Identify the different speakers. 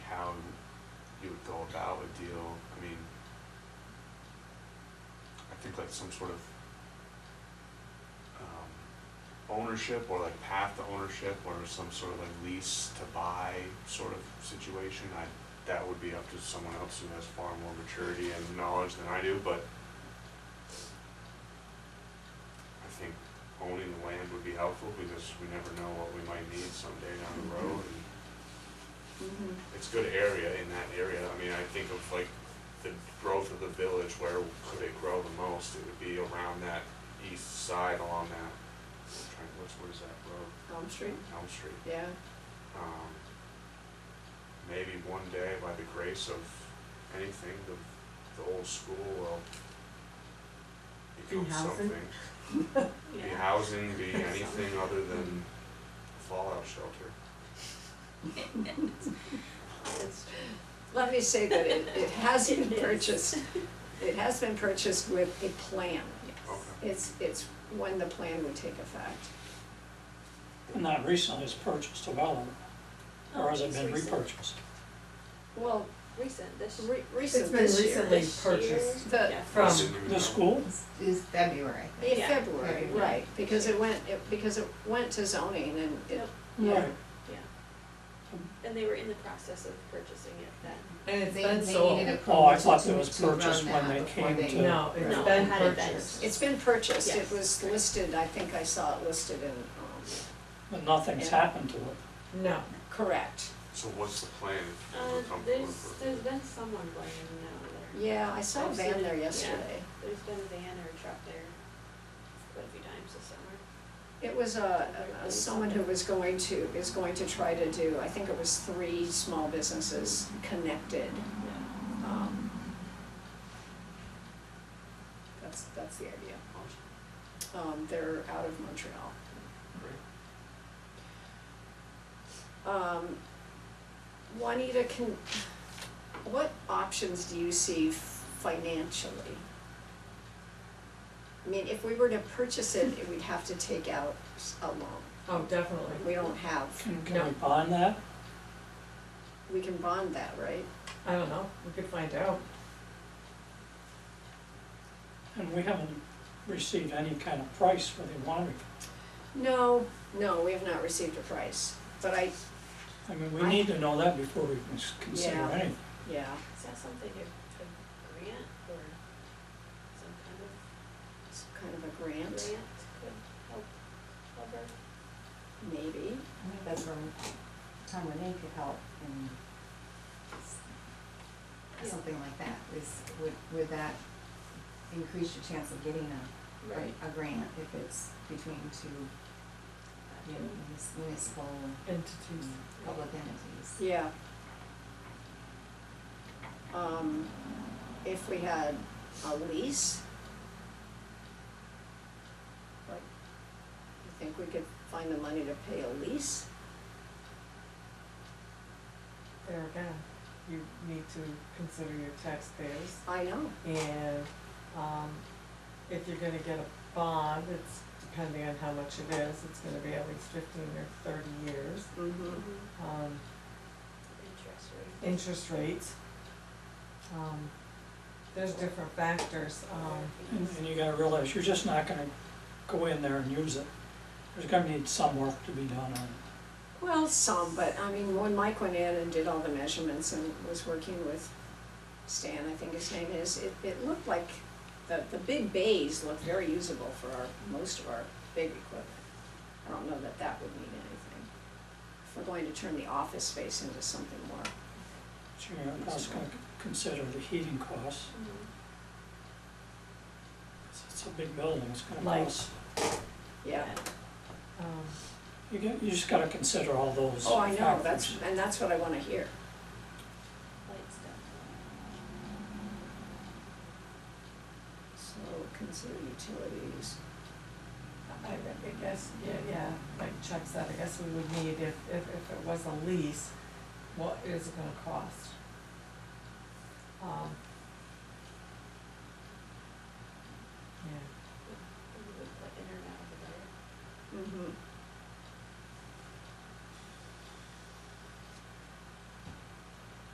Speaker 1: would go about a deal, I mean, I think like some sort of um, ownership or like path to ownership or some sort of like lease to buy sort of situation, I, that would be up to someone else who has far more maturity and knowledge than I do, but I think owning the land would be helpful because we never know what we might need someday down the road and
Speaker 2: Mhm.
Speaker 1: it's good area in that area. I mean, I think of like the growth of the village, where could it grow the most? It would be around that east side along that, I'm trying, what's, what is that road?
Speaker 2: Elm Street,
Speaker 1: Elm Street.
Speaker 2: yeah,
Speaker 1: Um, maybe one day by the grace of anything, the, the old school will become
Speaker 3: Be housing?
Speaker 1: something. Be
Speaker 4: Yeah.
Speaker 1: housing, be anything other than fallout shelter.
Speaker 4: It's
Speaker 2: let me say that it, it has been
Speaker 4: It is.
Speaker 2: purchased, it has been purchased with a plan.
Speaker 1: Okay.
Speaker 2: It's, it's when the plan would take effect.
Speaker 5: Not recently, it's purchased a while
Speaker 2: Oh,
Speaker 5: ago, or has it
Speaker 4: it's
Speaker 5: been
Speaker 4: uh, recent.
Speaker 5: repurchased?
Speaker 2: Well,
Speaker 4: Recent, this year.
Speaker 2: re-
Speaker 3: It's
Speaker 2: recent
Speaker 3: been
Speaker 2: this year,
Speaker 3: recently
Speaker 4: This year.
Speaker 3: purchased uh,
Speaker 2: the,
Speaker 4: Yeah.
Speaker 1: I
Speaker 3: from
Speaker 1: didn't even know.
Speaker 5: The school?
Speaker 3: is February.
Speaker 2: in
Speaker 4: Yeah.
Speaker 2: February,
Speaker 3: Right.
Speaker 2: right, because it went, it, because it went to zoning and it,
Speaker 4: Yep.
Speaker 2: yeah,
Speaker 5: Right.
Speaker 4: Yeah. And they were in the process of purchasing it then.
Speaker 3: And it's
Speaker 6: They-
Speaker 3: been
Speaker 6: they
Speaker 3: sold.
Speaker 6: needed a
Speaker 5: Oh, I thought
Speaker 6: consultant
Speaker 5: it was
Speaker 6: to run
Speaker 5: purchased when
Speaker 6: that
Speaker 5: they
Speaker 6: before
Speaker 5: came
Speaker 6: they-
Speaker 5: to-
Speaker 3: No, it's
Speaker 4: No,
Speaker 3: been
Speaker 4: it had been.
Speaker 3: purchased.
Speaker 2: it's been purchased, it
Speaker 4: Yes.
Speaker 2: was listed, I think I saw it listed in, um,
Speaker 5: But nothing's
Speaker 2: Yeah.
Speaker 5: happened to it.
Speaker 3: No,
Speaker 2: correct.
Speaker 1: So what's the plan? if we're
Speaker 4: Uh,
Speaker 1: comfortable
Speaker 4: there's,
Speaker 1: with it?
Speaker 4: there's been someone going in and out of there.
Speaker 2: Yeah, I saw a
Speaker 4: I've
Speaker 2: van
Speaker 4: seen
Speaker 2: there
Speaker 4: it, yeah.
Speaker 2: yesterday.
Speaker 4: There's been a van or a truck there quite a few times this summer.
Speaker 2: It was a, a- someone who was going to, is going to try to do, I think it was three small businesses connected. Um, That's, that's the idea.
Speaker 1: Awesome.
Speaker 2: Um, they're out of Montreal.
Speaker 1: Great.
Speaker 2: Um, Juanita, can, what options do you see financially? I mean, if we were to purchase it, we'd have to take out a loan.
Speaker 3: oh, definitely.
Speaker 2: We don't have,
Speaker 5: Can, can
Speaker 3: No.
Speaker 5: we bond that?
Speaker 2: we can bond that, right?
Speaker 3: I don't know, we could find out.
Speaker 5: And we haven't received any kind of price for the winery.
Speaker 2: No, no, we have not received a price, but I,
Speaker 5: I mean, we
Speaker 2: I-
Speaker 5: need to know that before we can s- consider
Speaker 2: Yeah.
Speaker 5: anything.
Speaker 2: yeah,
Speaker 4: Is that something, a, a grant or some kind of
Speaker 2: it's kind of a grant,
Speaker 4: grant could help cover?
Speaker 2: maybe.
Speaker 6: I think that's where Tom Renee could help and s-
Speaker 4: Yeah.
Speaker 6: something like that, is, would, would that increase your chance of getting a, a grant if it's between two you know, munis- municipal
Speaker 3: Entities.
Speaker 6: public entities?
Speaker 2: Yeah. Um, if we had a lease, like, you think we could find the money to pay a lease?
Speaker 3: There again, you need to consider your taxpayers.
Speaker 2: I know,
Speaker 3: And, um, if you're gonna get a bond, it's depending on how much it is, it's gonna be at least fifteen or thirty years.
Speaker 2: mm-hmm,
Speaker 4: Mhm.
Speaker 3: Um,
Speaker 4: Interest rate.
Speaker 3: interest rates. Um, there's different factors, um,
Speaker 5: And, and you gotta realize, you're just not gonna go in there and use it. There's gonna need some work to be done on it.
Speaker 2: well, some, but I mean, when Mike went in and did all the measurements and was working with Stan, I think his name is, it, it looked like, the, the big bays looked very usable for our, most of our big equipment. I don't know that that would mean anything. If we're going to turn the office space into something more
Speaker 5: So you're also gonna c- consider the heating costs.
Speaker 4: Mhm.
Speaker 5: It's- It's a big building, it's gonna
Speaker 3: Light.
Speaker 5: cost.
Speaker 2: Yeah,
Speaker 3: um,
Speaker 5: You get, you just gotta consider all those
Speaker 2: oh, I know, that's,
Speaker 5: factors.
Speaker 2: and that's what I wanna hear.
Speaker 4: Light stuff.
Speaker 2: So consider utilities.
Speaker 3: I, I guess, yeah, yeah, like Chuck said, I guess we would need, if, if, if it was a lease, what is it gonna cost? Um. Yeah,
Speaker 4: Like in or out of the door.
Speaker 2: Mm-hmm.